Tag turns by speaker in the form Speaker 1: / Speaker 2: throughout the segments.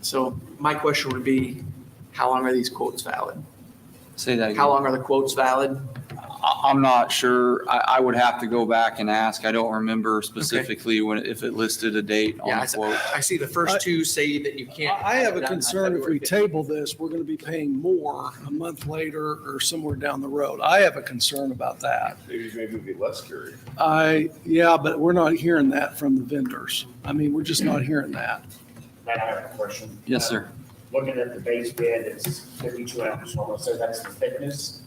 Speaker 1: So my question would be, how long are these quotes valid?
Speaker 2: Say that
Speaker 1: How
Speaker 2: again.
Speaker 1: long are the quotes valid?
Speaker 2: I, I'm not sure. I, I would have to go back and ask. I don't remember specifically when, if it listed a date
Speaker 1: Yeah,
Speaker 2: on
Speaker 1: I
Speaker 2: the
Speaker 1: s-
Speaker 2: quote.
Speaker 1: I see the first two say that you can't.
Speaker 3: I I have
Speaker 1: it
Speaker 3: a
Speaker 1: done by
Speaker 3: concern if
Speaker 1: February
Speaker 3: we
Speaker 1: 15th.
Speaker 3: table this, we're going to be paying more a month later or somewhere down the road. I have a concern about that.
Speaker 4: Maybe, maybe be less scary.
Speaker 3: I, yeah, but we're not hearing that from the vendors. I mean, we're just not hearing that.
Speaker 5: Matt, I have a question.
Speaker 2: Yes, sir.
Speaker 5: Looking at the base bid, it's fifty-two ounces, almost, so that's the thickness.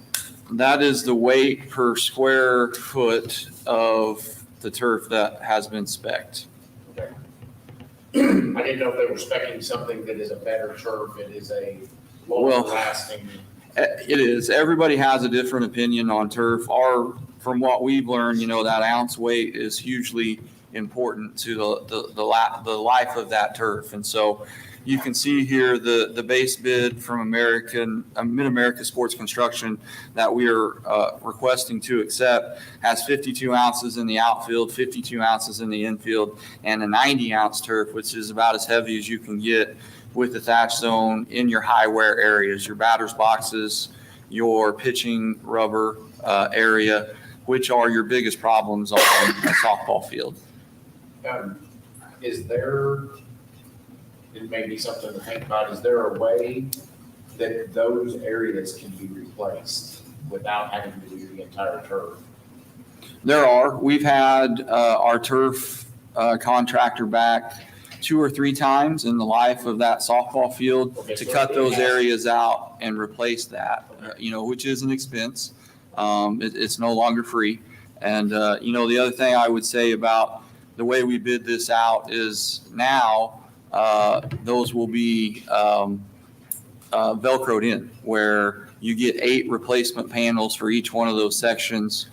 Speaker 2: That is the weight per square foot of the turf that has been specced.
Speaker 5: Okay. I didn't know if they were specing something that is a better turf, it is a
Speaker 2: Well-
Speaker 5: longer lasting.
Speaker 2: Eh, It is. Everybody has a different opinion on turf. Our, from what we've learned, you know, that ounce weight is hugely important to the, the, the la, the life of that turf. And so you can see here the, the base bid from American, uh, Mid-America Sports Construction that we are, uh, requesting to accept has fifty-two ounces in the outfield, fifty-two ounces in the infield, and a ninety-ounce turf, which is about as heavy as you can get with the thatch zone in your high wear areas, your batter's boxes, your pitching rubber uh, area, which are your biggest problems on a softball field.
Speaker 5: Um, Is there, it may be something to think about, is there a way that those areas can be replaced without having to do the entire turf?
Speaker 2: There are, we've had uh, our turf uh, contractor back two or three times in the life of that softball field to cut those areas out and replace that, uh, you know, which is an expense. Um, it- It's no longer free. And, uh, you know, the other thing I would say about the way we bid this out is now, uh, those will be um, uh, Velcroed in, where you get eight replacement panels for each one of those sections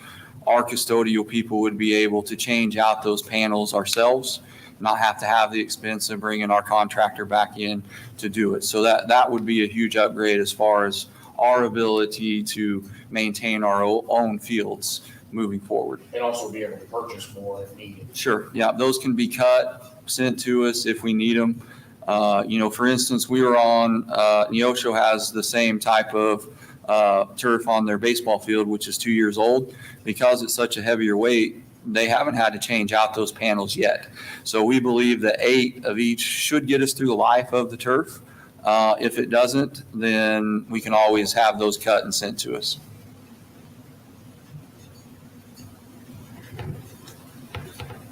Speaker 2: our custodial people would be able to change out those panels ourselves, not have to have the expense of bringing our contractor back in to do it. So that, that would be a huge upgrade as far as our ability to maintain our o- own fields moving forward.
Speaker 5: And also be able to purchase more if needed?
Speaker 2: Sure, yeah, those can be cut, sent to us if we need them. Uh, You know, for instance, we were on, uh, Neosho has the same type of uh, turf on their baseball field, which is two years old. Because it's such a heavier weight, they haven't had to change out those panels yet. So we believe that eight of each should get us through the life of the turf. Uh, If it doesn't, then we can always have those cut and sent to us.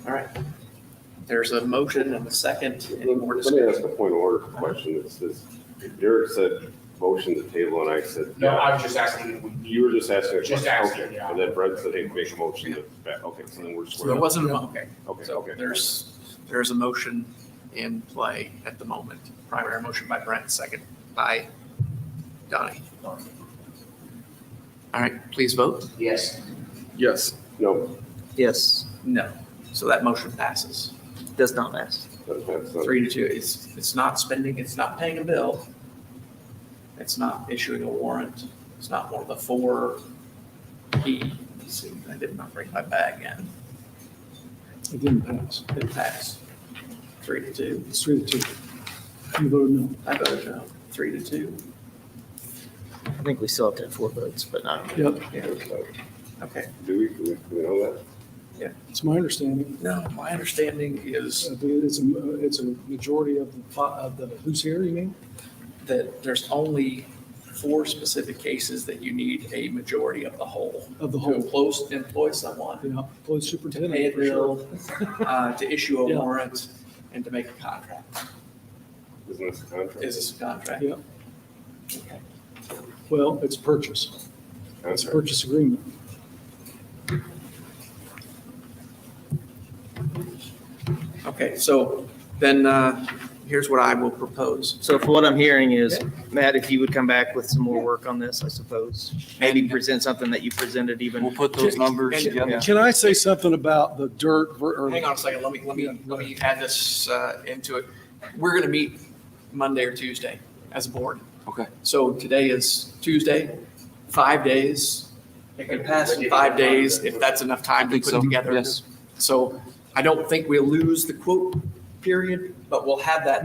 Speaker 1: All right. There's a motion and a second. Any more
Speaker 6: Let me ask
Speaker 1: discussion?
Speaker 6: a point of order question. It says, Derek said motion to table and I said,
Speaker 5: No, I was just asking if we need.
Speaker 6: you were just asking a question.
Speaker 5: Just asking,
Speaker 6: Okay.
Speaker 5: yeah.
Speaker 6: And then Brent said, hey, make a motion to, back- okay, so then we're
Speaker 1: So there
Speaker 6: square.
Speaker 1: wasn't a, okay.
Speaker 6: Okay,
Speaker 1: So
Speaker 6: okay.
Speaker 1: there's, there's a motion in play at the moment. Primary motion by Brent, second by Donnie. All right, please vote.
Speaker 5: Yes,
Speaker 4: Yes.
Speaker 6: No,
Speaker 7: Yes,
Speaker 1: No. So that motion passes.
Speaker 7: does not pass.
Speaker 6: that- that's not-
Speaker 1: Three to two. It's, it's not spending, it's not paying a bill. It's not issuing a warrant. It's not one of the four P. Let's see, I did not bring my bag in.
Speaker 3: It didn't pass.
Speaker 1: It passed. Three to two.
Speaker 3: It's three to two. You voted no.
Speaker 1: I voted no. Three to two.
Speaker 7: I think we still have to have four votes, but not.
Speaker 3: Yep,
Speaker 1: Okay.
Speaker 6: Do we, do we- do we know that?
Speaker 3: it's my understanding.
Speaker 1: No, my understanding is
Speaker 3: I believe It's a, it's a majority of the, fi- of the, who's here, you mean?
Speaker 1: that there's only four specific cases that you need a majority of the whole.
Speaker 3: Of the
Speaker 1: To
Speaker 3: whole,
Speaker 1: employ, employ someone,
Speaker 3: yeah, police
Speaker 1: pay a
Speaker 3: superintendent for sure.
Speaker 1: bill, uh, to issue a
Speaker 3: Yeah.
Speaker 1: warrant, and to make a contract.
Speaker 6: Isn't this a contract?
Speaker 1: Is this a contract?
Speaker 3: Yeah.
Speaker 1: Okay.
Speaker 3: Well, it's purchase. It's a
Speaker 6: Contract.
Speaker 3: purchase agreement.
Speaker 1: Okay, so then, uh, here's what I will propose.
Speaker 7: So if what I'm hearing is, Matt, if you would come back with some more work on this, I suppose, maybe present something that you presented even.
Speaker 2: We'll put those numbers
Speaker 1: And-
Speaker 2: together.
Speaker 3: Can I say something about the dirt? ver- or-
Speaker 1: Hang on a second, let me, let me, let me add this uh, into it. We're gonna meet Monday or Tuesday as a board.
Speaker 2: Okay.
Speaker 1: So today is Tuesday, five days. It can pass in five days if that's enough
Speaker 2: I
Speaker 1: time to
Speaker 2: think
Speaker 1: put
Speaker 2: so.
Speaker 1: it together.
Speaker 2: Yes.
Speaker 1: So I don't think we'll lose the quote period, but we'll have that